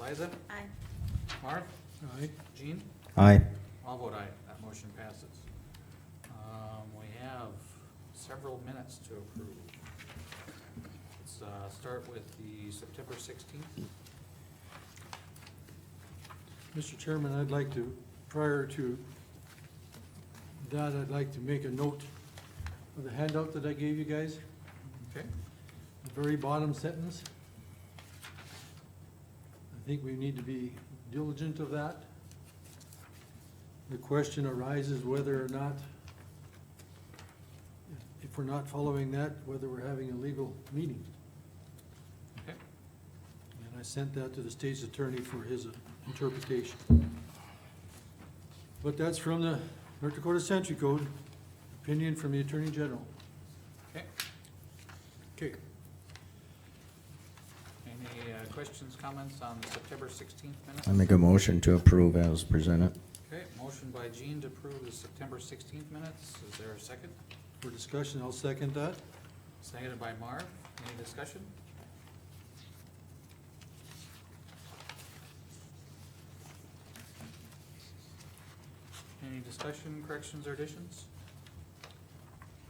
Liza? Aye. Marv? Aye. Jean? Aye. All vote aye, that motion passes. Um, we have several minutes to approve. Let's, uh, start with the September sixteenth. Mr. Chairman, I'd like to, prior to that, I'd like to make a note of the handout that I gave you guys, Okay. the very bottom sentence. I think we need to be diligent of that. The question arises whether or not, if we're not following that, whether we're having a legal meeting. Okay. And I sent that to the state's attorney for his uh, interpretation. But that's from the North Dakota Century Code, opinion from the Attorney General. Okay. Okay. Any, uh, questions, comments on the September sixteenth minutes? I make a motion to approve as presented. Okay, motion by Jean to approve the September sixteenth minutes. Is there a second? For discussion, I'll second that. Seconded by Marv. Any discussion? Any discussion, corrections, or additions?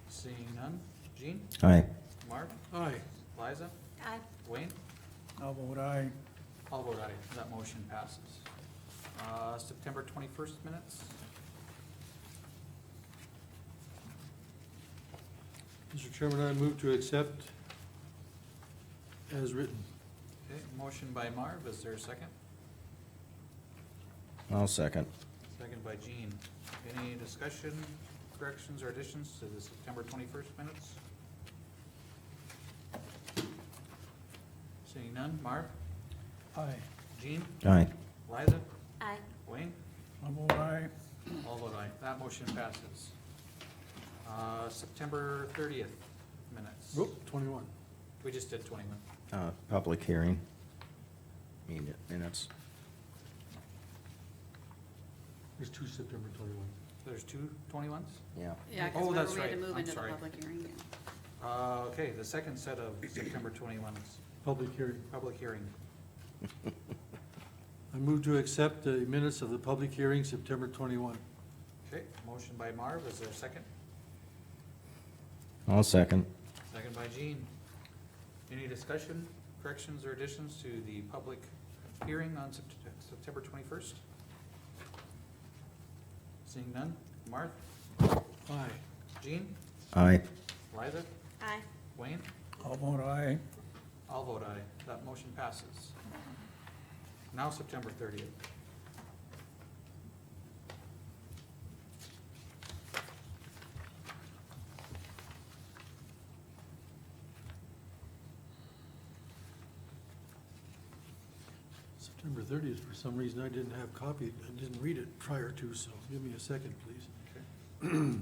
Seeing none. Jean, Aye. Marv, Aye. Liza, Aye. Wayne? I'll vote aye. All vote aye. That motion passes. Uh, September twenty-first minutes? Mr. Chairman, I move to accept as written. Okay, motion by Marv. Is there a second? I'll second. Second by Jean. Any discussion, corrections, or additions to the September twenty-first minutes? Seeing none, Marv, Aye. Jean, Aye. Liza, Aye. Wayne, I'll vote aye. all vote aye. That motion passes. Uh, September thirtieth minutes. Whoop, twenty-one. We just did twenty-one. Uh, public hearing. Mean it, minutes. There's two September twenty-one. There's two twenty-ones? Yeah. Yeah, Oh, because that's remember, we had to right. move I'm into the sorry. public hearing. Uh, okay, the second set of September twenty-ones, Public hearing. public hearing. I move to accept the minutes of the public hearing, September twenty-one. Okay, motion by Marv, is there a second? I'll second. Second by Jean. Any discussion, corrections, or additions to the public hearing on Sept- September twenty-first? Seeing none, Marth, Aye. Jean, Aye. Liza, Aye. Wayne, I'll vote aye. all vote aye, that motion passes. Now September thirtieth. September thirtieth, for some reason, I didn't have copy, I didn't read it prior to, so give me a second, please.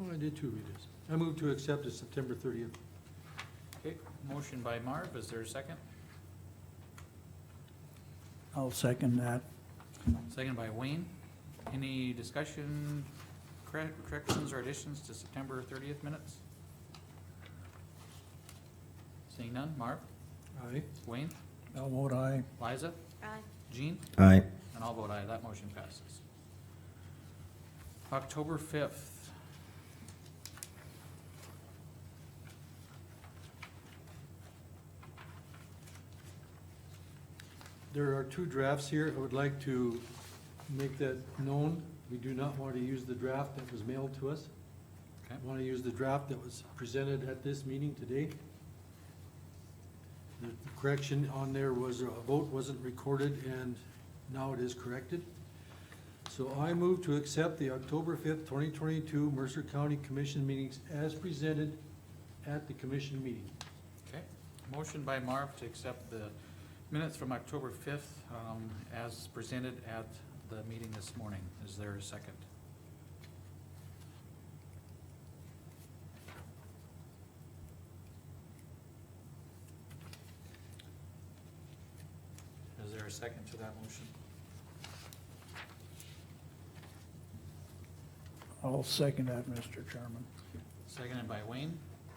Oh, I did two readers. I move to accept the September thirtieth. Okay, motion by Marv, is there a second? I'll second that. Second by Wayne. Any discussion, corre- corrections, or additions to September thirtieth minutes? Seeing none, Marv, Aye. Wayne, I'll vote aye. Liza, Aye. Jean, Aye. and I'll vote aye, that motion passes. October fifth. There are two drafts here. I would like to make that known. We do not want to use the draft that was mailed to us. Okay. I want to use the draft that was presented at this meeting today. The correction on there was uh, a vote wasn't recorded and now it is corrected. So I move to accept the October fifth, twenty twenty-two Mercer County Commission meetings as presented at the commission meeting. Okay. Motion by Marv to accept the minutes from October fifth, um, as presented at the meeting this morning. Is there a second? Is there a second to that motion? I'll second that, Mr. Chairman. Seconded by Wayne.